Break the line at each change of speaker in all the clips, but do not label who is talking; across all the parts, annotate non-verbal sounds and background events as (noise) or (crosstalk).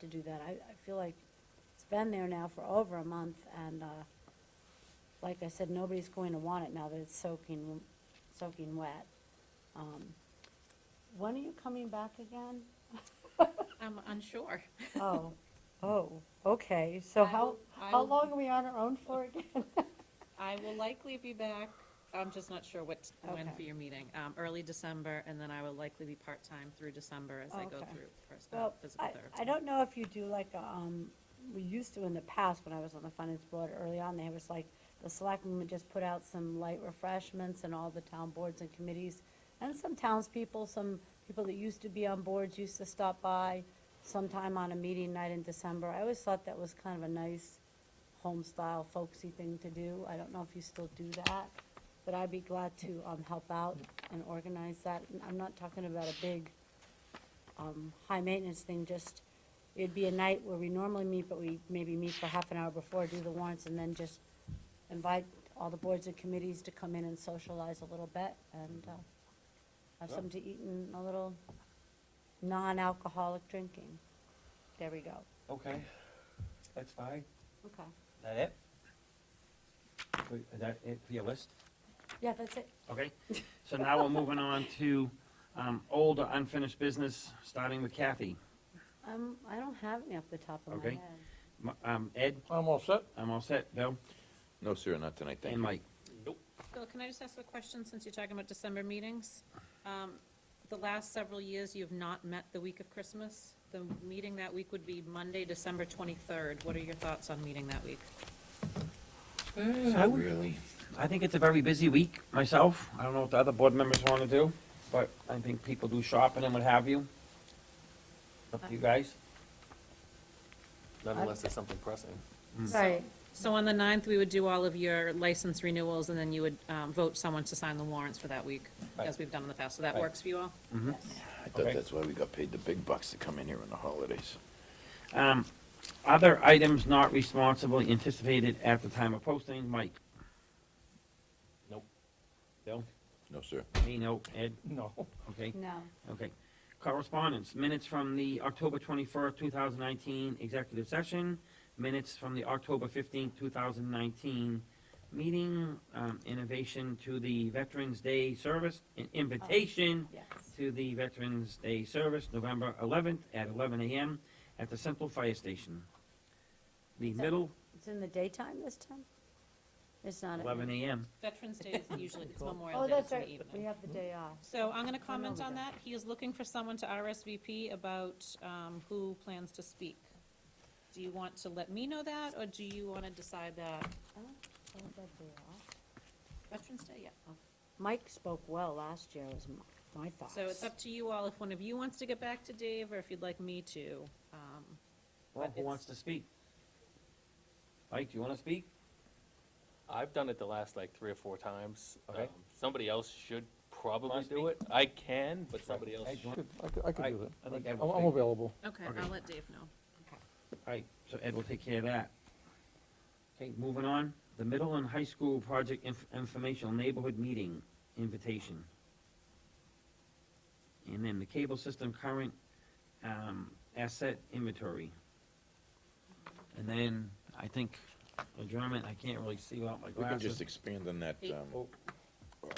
to do that. I, I feel like it's been there now for over a month, and, uh, like I said, nobody's going to want it now that it's soaking, soaking wet. Um, When are you coming back
(laughs)
again?
I'm unsure.
Oh, oh, okay, so
I
how,
will- I
how
will-
long are we on our own for again?
I will likely be back, I'm just not sure what, when for
Okay.
your meeting, um, early December, and then I will likely be part-time through December as I go
Okay.
through first, uh,
Well,
physical
I,
therapy.
I don't know if you do like, um, we used to in the past, when I was on the finance board early on, there was like, the selectmen would just put out some light refreshments and all the town boards and committees, and some townspeople, some people that used to be on boards used to stop by sometime on a meeting night in December. I always thought that was kind of a nice home-style folksy thing to do. I don't know if you still do that, but I'd be glad to, um, help out and organize that. And I'm not talking about a big, um, high maintenance thing, just, it'd be a night where we normally meet, but we maybe meet for half an hour before, do the warrants, and then just invite all the boards and committees to come in and socialize a little bit and, uh, have something to eat and a little non-alcoholic drinking. There we go.
Okay, that's fine.
Okay.
Is that it? Wait, Is that it for your list?
Yeah, that's it.
Okay, so now we're moving on to um, old or unfinished business, starting with Kathy.
Um, I don't have any off the top of my
Okay.
head.
M- um, Ed,
I'm all set.
I'm all set. Bill
No, sir, not tonight, thank
and
you.
Mike.
Bill, can I just ask a question, since you're talking about December meetings? Um, The last several years, you've not met the week of Christmas. The meeting that week would be Monday, December 23rd. What are your thoughts on meeting that week?
I would-
Really?
I think it's a very busy week myself. I don't know what the other board members want to do, but I think people do shopping and what have you. Up to you guys.
Not unless there's something pressing.
Right.
So on the 9th, we would do all of your license renewals, and then you would um, vote someone to sign the warrants for that week, as
Right.
we've done in the past. So that
Right.
works for you all?
I thought
Okay.
that's why we got paid the big bucks to come in here on the holidays.
Um, Other items not responsibly anticipated at the time of posting, Mike? Nope. Bill?
No, sir.
Me, no. Ed?
No.
Okay,
No.
okay. Correspondence, minutes from the October twenty-first, two thousand nineteen executive session, minutes from the October fifteenth, two thousand nineteen meeting, um, innovation to the Veterans Day service, an invitation
Yes.
to the Veterans Day service, November 11th at 11 a.m. at the Central Fire Station. The
that-
middle,
It's in the daytime this time? It's not. at
11
night.
a.m.
Veterans Day is usually, it's Memorial
Oh,
Day,
that's
it's in the
right. We
evening.
have the day off.
So I'm gonna comment
we
on
go.
that. He is looking for someone to RSVP about, um, who plans to speak. Do you want to let me know that, or do you wanna decide that?
Oh, that day off.
Veterans Day, yeah.
Mike spoke well last year, was m- my thoughts.
So it's up to you all if one of you wants to get back to Dave, or if you'd like me to. Um,
Well, who
it's-
wants to speak? Mike, do you want to speak?
I've done it the last like three or four times.
Okay.
Um, Somebody else should probably
Must
do
be.
it. I can, but somebody else
Hey, do you
should.
want-
I could, I could
I-
do
I
that.
think
I-
that
I'm
would
I'm
fit.
available.
Okay,
Okay.
I'll let Dave know.
All right, so Ed will take care of that. Okay, moving on, the middle and high school project inf- informational neighborhood meeting invitation. And then the cable system current, um, asset inventory. And then, I think, adjournment, I can't really see without my
We can
glasses.
just expand on that,
Eight.
um,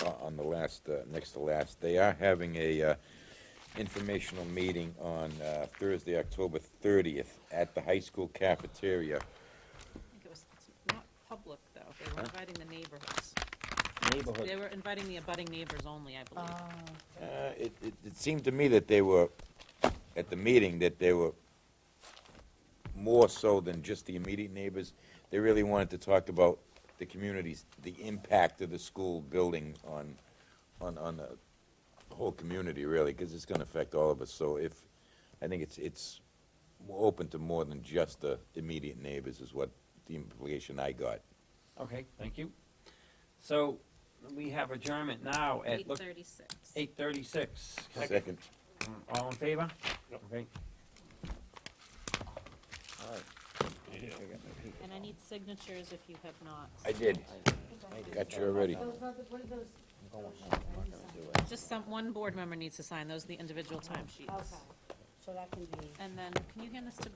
o- on the last, uh, next to last. They are having a uh, informational meeting on uh, Thursday, October 30th, at the high school cafeteria.
I think it was, it's not public, though. They were inviting the neighborhoods. They
Neighborhood,
were inviting the abutting neighbors only, I believe.
Um,
Uh, It it- it seemed to me that they were, at the meeting, that they were more so than just the immediate neighbors. They really wanted to talk about the communities, the impact of the school building on, on, on the whole community, really, because it's going to affect all of us. So if, I think it's, it's more open to more than just the immediate neighbors is what the implication I got.
okay, thank you. So, we have adjournment now at,
Eight
look,
thirty-six.
eight thirty-six.
Second.
All in favor? Okay.
And I need signatures if you have not.
I did. Got you already.
Just some, one board member needs to sign. Those are the individual timesheets.
Okay, so that can be.
And then, can you hand this to